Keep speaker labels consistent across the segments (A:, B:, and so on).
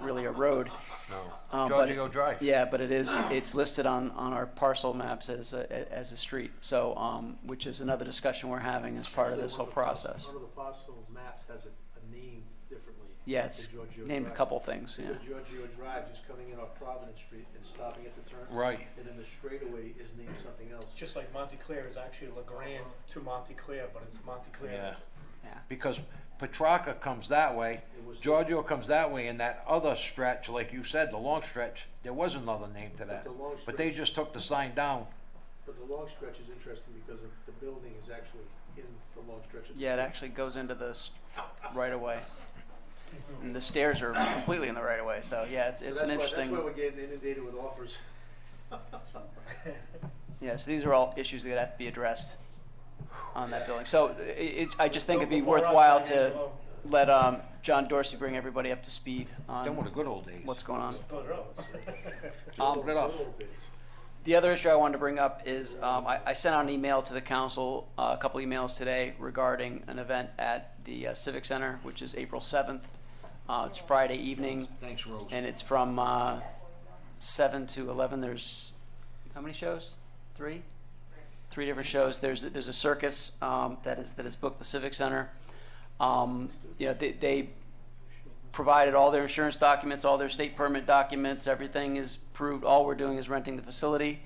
A: appropriate road.
B: No.
A: Uh, but
B: Georgia
A: it-
B: go Drive.
A: Yeah, but it is, it's listed on, on our parcel maps as, a- as a street, so, um, which is another discussion we're having as part of this whole process.
C: One of the parcel maps has a, a name differently.
A: Yeah,
C: to
A: it's
C: Giorgio
A: named a
C: Drive.
A: couple things,
C: So
A: yeah.
C: Giorgio Drive, just coming in off Providence Street and stopping at the turn.
B: Right.
C: And then the straightaway is named something else.
D: Just like Montclair is actually LeGrand to Montclair, but it's Montclair.
B: Yeah,
A: Yeah.
B: because Petrarca comes that way,
C: It was-
B: Giorgio comes that way, and that other stretch, like you said, the long stretch, there was another name to that.
C: the long
B: But they
C: stretch-
B: just took the sign down.
C: But the long stretch is interesting because of the building is actually in the long stretch. of the
A: Yeah, it
C: street.
A: actually goes into this right away. And the stairs are completely in the right away, so yeah, it's,
C: So
A: it's an
C: that's why- That's why
A: interesting,
C: we're getting inundated with offers.
A: yeah, so these are all issues that have to be addressed on that building. So i it's, I just think it'd be
D: Before I
A: worthwhile
D: sign it,
A: to
D: well,
A: let, um, John Dorsey bring everybody up to speed
B: Then were the
A: on
B: good old days.
A: what's going on.
D: Bill Rose.
A: Um,
B: it up.
C: Little bits.
A: The other issue I wanted to bring up is um, I, I sent out an email to the council, uh, a couple emails today regarding an event at the uh, Civic Center, which is April 7th. Uh, it's Friday evening,
B: Thanks, Rose.
A: and it's from uh, 7 to 11. There's how many shows? Three? Three different shows. There's, there's a circus um, that, is, that is booked the Civic Center. Um, you know, they, they provided all their insurance documents, all their state permit documents, everything is proved, all we're doing is renting the facility.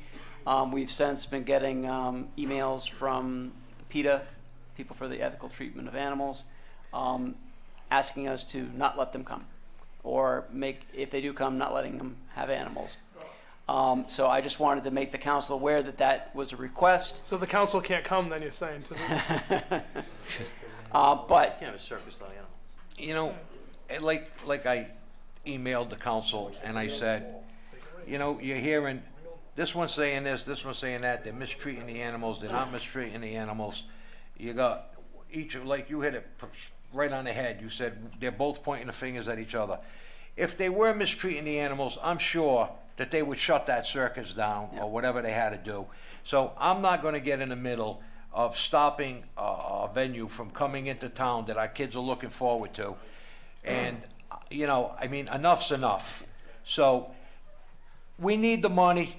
A: Um, we've since been getting, um, emails from PETA, People for the Ethical Treatment of Animals, um, asking us to not let them come. Or make, if they do come, not letting them have animals. Um, so I just wanted to make the council aware that that was a request.
E: So the council can't come, then you're saying to the,
A: Uh, but
F: Can't have a circus without animals.
B: You know, eh, like, like I emailed the council and I said, you know, you're hearing, this one's saying this, this one's saying that, they're mistreating the animals, they're not mistreating the animals. You got, each, like you hit it p- right on the head, you said, they're both pointing the fingers at each other. If they were mistreating the animals, I'm sure that they would shut that circus down or whatever they had to do. So I'm not gonna get in the middle of stopping a, a venue from coming into town that our kids are looking forward to. And, uh, you know, I mean, enough's enough. So we need the money.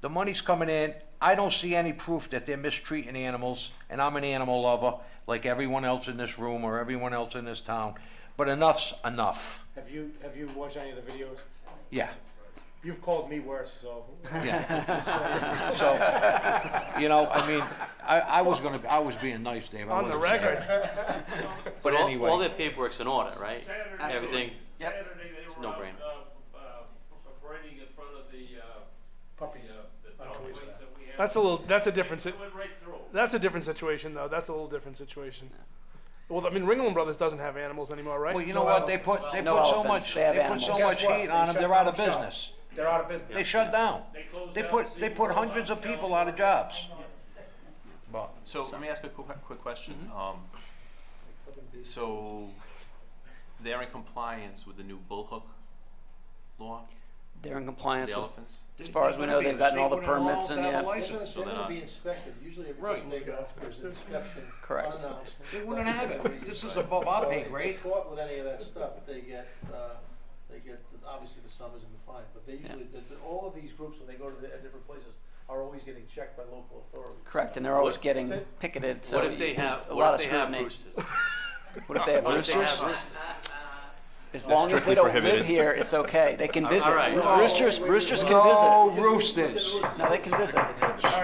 B: The money's coming in. I don't see any proof that they're mistreating animals, and I'm an animal lover, like everyone else in this room or everyone else in this town. But enough's enough.
D: Have you, have you watched any of the videos?
B: Yeah,
D: You've called me worse, so.
B: yeah. so, you know, I mean, I, I was gonna, I was being nice, Dave. I
E: on the
B: wasn't saying-
E: record.
B: But
F: all,
B: anyway.
F: all their paperwork's in order, right? Everything.
A: Uh, Yep.
G: Saturday, they
F: It's
G: were
F: no
G: out,
F: brainer.
G: uh, uh, parading in front of the, uh,
D: Puppies.
G: the
D: I don't
G: dog
D: believe
G: place that we have.
E: That's a little. That's a different.
G: They
E: si-
G: went right through.
E: That's a different situation, though. That's a little different situation. Well, I mean, Ringling Brothers doesn't have animals anymore, right?
B: Well, you know what? They put, they
A: No
B: put so
A: elephants.
B: much,
A: They have
B: they put so
A: animals.
B: much
D: Guess what?
B: heat on them,
D: They
B: they're
D: shut
B: out of
D: down shop.
B: business.
D: They're out of business.
B: They shut down.
G: They closed
B: They
G: down
B: put,
G: the
B: they put
G: SeaWorld
B: hundreds of
G: downtown.
B: people out of jobs. But
F: So let me ask a quick, quick question. Um, so they're in compliance with the new bullhook law,
A: They're in compliance
F: the
A: with,
F: elephants.
A: as far as we know, they've gotten all the permits and,
B: They
A: yeah,
C: They're gonna,
B: wouldn't
C: they're
F: they're
C: gonna
F: not-
C: be inspected, usually if
B: Right.
C: they go, there's an inspection.
A: Correct.
C: unannounced.
B: have it. This is above our pay
C: So
B: grade.
C: If they're caught with any of that stuff, they get, uh, they get, obviously the summers and the fine, but they usually, the- the- all of these groups, when they go to the different places, are always getting checked by local authorities.
A: correct, and they're always
F: What-
A: getting picketed, so
F: what if they
A: there's
F: have?
A: a
F: what
A: lot
F: if
A: of
F: they have
A: scrutiny.
F: roosters?
A: What if they have
F: What if they have
A: roosters?
F: roosters?
A: As long as they
H: strictly
A: don't live
H: prohibited.
A: here, it's okay, they can visit.
F: right.
A: Roosters, roosters can visit,
B: No roosters,
A: no, they can visit.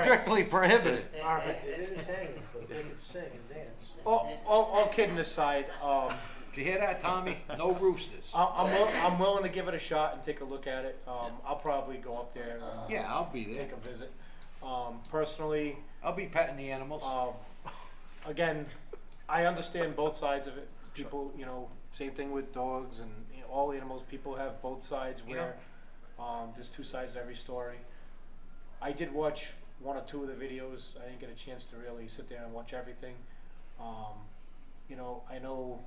B: strictly prohibited.
D: All right.
C: It is hanging, but they can sing and dance.
D: All, all, all kidding aside, um,
B: Did you hear that, Tommy? No roosters.
D: I- I'm, will- I'm willing to give it a shot and take a look at it. Um, I'll probably go up there and uh,
B: Yeah, I'll be there.
D: take a visit. Um, personally,
B: I'll be petting the animals.
D: Um, again, I understand both sides of it. People, you know, same thing with dogs and you know, all animals. People have both sides where um, there's two sides to every story. I did watch one or two of the videos. I didn't get a chance to really sit there and watch everything. Um, you know, I know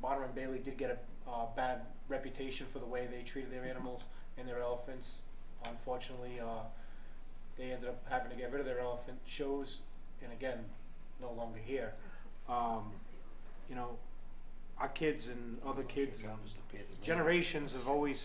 D: Bonner and Bailey did get a uh, bad reputation for the way they treated their animals and their elephants. Unfortunately, uh, they ended up having to get rid of their elephant shows, and again, no longer here. Um, you know, our kids and other kids, generations have always